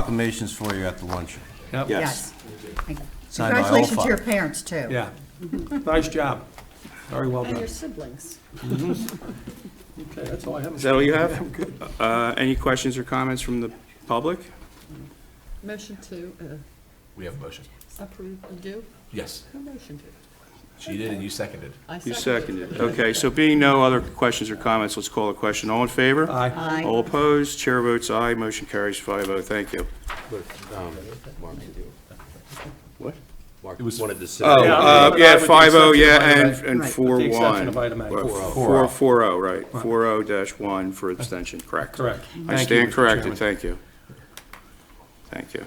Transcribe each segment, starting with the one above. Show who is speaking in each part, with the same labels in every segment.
Speaker 1: proclamations for you at the luncheon.
Speaker 2: Yep.
Speaker 3: Yes.
Speaker 4: Thank you.
Speaker 1: Signed by
Speaker 4: Congratulations
Speaker 1: Olfa.
Speaker 4: to your parents, too.
Speaker 2: Yeah. Nice job. Very well
Speaker 5: And
Speaker 2: done.
Speaker 5: your siblings.
Speaker 2: Okay, that's all I have.
Speaker 3: Is that all you have? Uh, Any questions or comments from the public?
Speaker 5: Motion to uh,
Speaker 6: We have a motion.
Speaker 5: approve and do?
Speaker 6: Yes,
Speaker 5: Who motioned it?
Speaker 6: she did, and you seconded.
Speaker 5: I
Speaker 3: You
Speaker 5: seconded
Speaker 3: seconded. Okay, so being no other questions or comments, let's call a question. All in favor?
Speaker 2: Aye.
Speaker 5: Aye.
Speaker 3: All opposed? Chair votes aye. Motion carries 5-0. Thank you. What?
Speaker 6: It was one of the.
Speaker 3: Oh,
Speaker 2: Yeah,
Speaker 3: uh,
Speaker 2: I
Speaker 3: yeah,
Speaker 2: would-
Speaker 3: five oh, yeah,
Speaker 2: with the
Speaker 3: and,
Speaker 2: exception
Speaker 3: and
Speaker 4: Right.
Speaker 3: four
Speaker 2: With the exception
Speaker 3: one.
Speaker 2: of item A. Four oh.
Speaker 3: Four, four oh, right, four oh dash one for abstention, correct.
Speaker 2: Correct.
Speaker 3: I
Speaker 2: Thank you,
Speaker 3: stand
Speaker 2: Mr.
Speaker 3: corrected,
Speaker 2: Chairman.
Speaker 3: thank you. Thank you.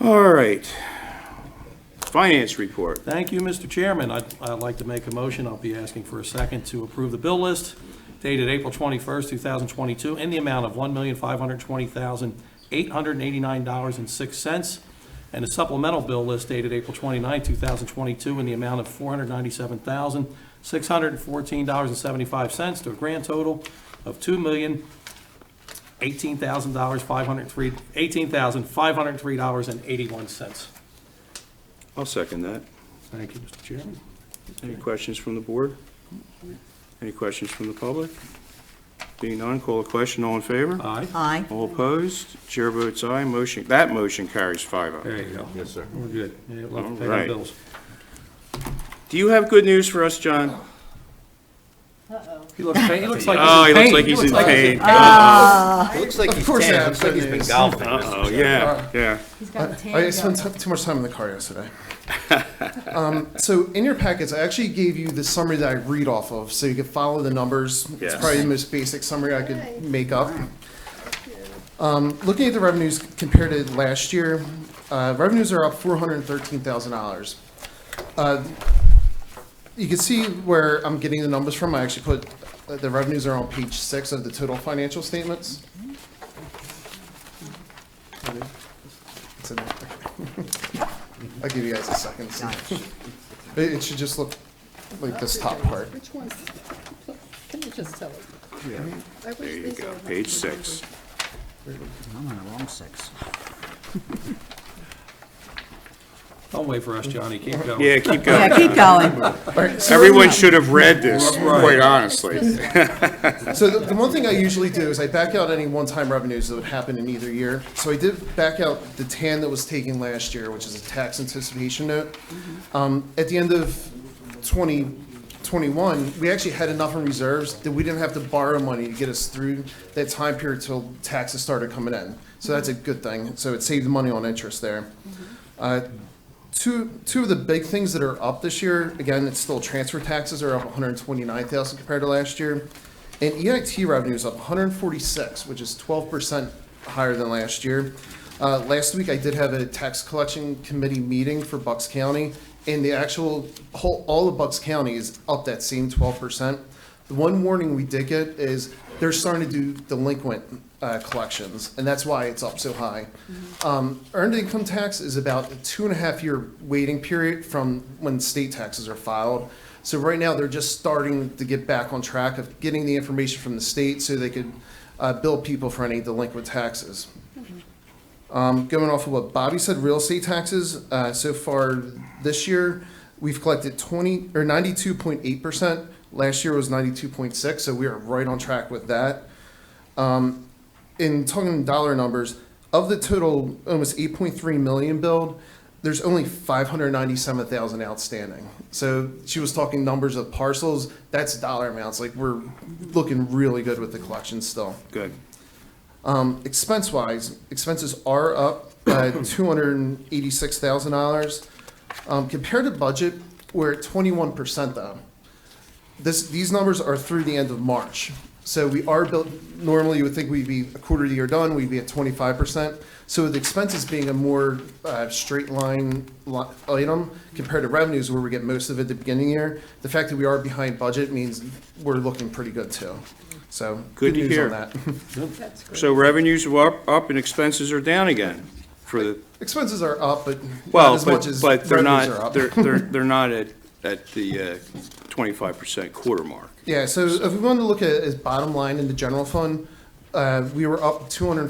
Speaker 3: All right. Finance report.
Speaker 2: Thank you, Mr. Chairman. I'd, I'd like to make a motion, I'll be asking for a second, to approve the bill list dated April 21st, 2022, in the amount of $1,520,889.06, and a supplemental bill list dated April 29th, 2022, in the amount of $497,614.75, to a grand total of $2,018,503, $18,503.81.
Speaker 3: I'll second that.
Speaker 2: Thank you, Mr. Chairman.
Speaker 3: Any questions from the board? Any questions from the public? Being none, call a question, all in favor?
Speaker 2: Aye.
Speaker 4: Aye.
Speaker 3: All opposed? Chair votes aye, motion, that motion carries five oh.
Speaker 2: There you go.
Speaker 6: Yes, sir.
Speaker 2: We're good. Yeah, we'll have to pay
Speaker 3: All right.
Speaker 2: our bills.
Speaker 3: Do you have good news for us, John?
Speaker 2: He looks pain, he looks like
Speaker 3: Oh, he
Speaker 2: he's in
Speaker 3: looks
Speaker 2: pain.
Speaker 3: like he's in pain. Oh,
Speaker 6: It looks like he's
Speaker 7: course I
Speaker 6: tan,
Speaker 7: have
Speaker 6: looks like he's been
Speaker 7: goodness.
Speaker 6: golfing.
Speaker 3: Oh, yeah, yeah.
Speaker 5: He's got a
Speaker 7: I spent t- too much time in the car yesterday. um, so in your packets, I actually gave you the summary that I read off of, so you could follow the numbers.
Speaker 3: Yes.
Speaker 7: It's probably the most basic summary I could make up. Um, looking at the revenues compared to last year, uh, revenues are up four hundred thirteen thousand dollars. Uh, you can see where I'm getting the numbers from. I actually put uh, the revenues are on page six of the total financial statements. It's in there. I'll give you guys a second. It, it should just look like this top part.
Speaker 5: Which one's, can you just tell it? I wish
Speaker 3: There you
Speaker 5: these
Speaker 3: go,
Speaker 5: were-
Speaker 3: page six.
Speaker 4: I'm on the wrong six.
Speaker 2: Don't wait for us, Johnny. Keep going.
Speaker 3: Yeah, keep
Speaker 4: Yeah,
Speaker 3: going.
Speaker 4: keep going.
Speaker 3: Everyone should have read this, quite honestly.
Speaker 7: So the, the one thing I usually do is I back out any one-time revenues that would happen in either year. So I did back out the tan that was taken last year, which is a tax anticipation note. Um, at the end of 2021, we actually had enough in reserves that we didn't have to borrow money to get us through that time period till taxes started coming in. So that's a good thing. So it saved money on interest there. Uh, Two, two of the big things that are up this year, again, it's still transfer taxes are up 129,000 compared to last year. And EIT revenue is up 146, which is 12% higher than last year. Uh, Last week, I did have a tax collection committee meeting for Bucks County, and the actual, whole, all of Bucks County is up that same 12%. The one warning we did get is they're starting to do delinquent uh, collections, and that's why it's up so high. Um, Earned income tax is about a two and a half year waiting period from when state taxes are filed. So right now, they're just starting to get back on track of getting the information from the state so they could uh, bill people for any delinquent taxes. Um, going off of what Bobby said, real estate taxes, uh, so far this year, we've collected twenty, or ninety-two point eight percent. Last year was ninety-two point six, so we are right on track with that. Um, in talking dollar numbers, of the total almost eight point three million billed, there's only five hundred ninety-seven thousand outstanding. So she was talking numbers of parcels, that's dollar amounts, like we're looking really good with the collection still.
Speaker 3: Good.
Speaker 7: Um, expense wise, expenses are up by two hundred and eighty-six thousand dollars. Um, compared to budget, we're at twenty-one percent though. This, these numbers are through the end of March. So we are built, normally you would think we'd be a quarter of the year done, we'd be at twenty-five percent. So with expenses being a more, uh, straight line li- item compared to revenues where we get most of it at the beginning of the year, the fact that we are behind budget means we're looking pretty good too. So,
Speaker 3: Good
Speaker 7: good
Speaker 3: to
Speaker 7: news
Speaker 3: hear.
Speaker 7: on that.
Speaker 5: That's great.
Speaker 3: So revenues are up, up and expenses are down again for the,
Speaker 7: Expenses are up, but not
Speaker 3: well,
Speaker 7: as much
Speaker 3: but,
Speaker 7: as
Speaker 3: but they're
Speaker 7: revenues are
Speaker 3: not,
Speaker 7: up.
Speaker 3: they're, they're, they're not at, at the uh, twenty-five percent quarter mark.
Speaker 7: Yeah, so if we wanted to look at it as bottom line in the general fund, uh, uh, we were up two hundred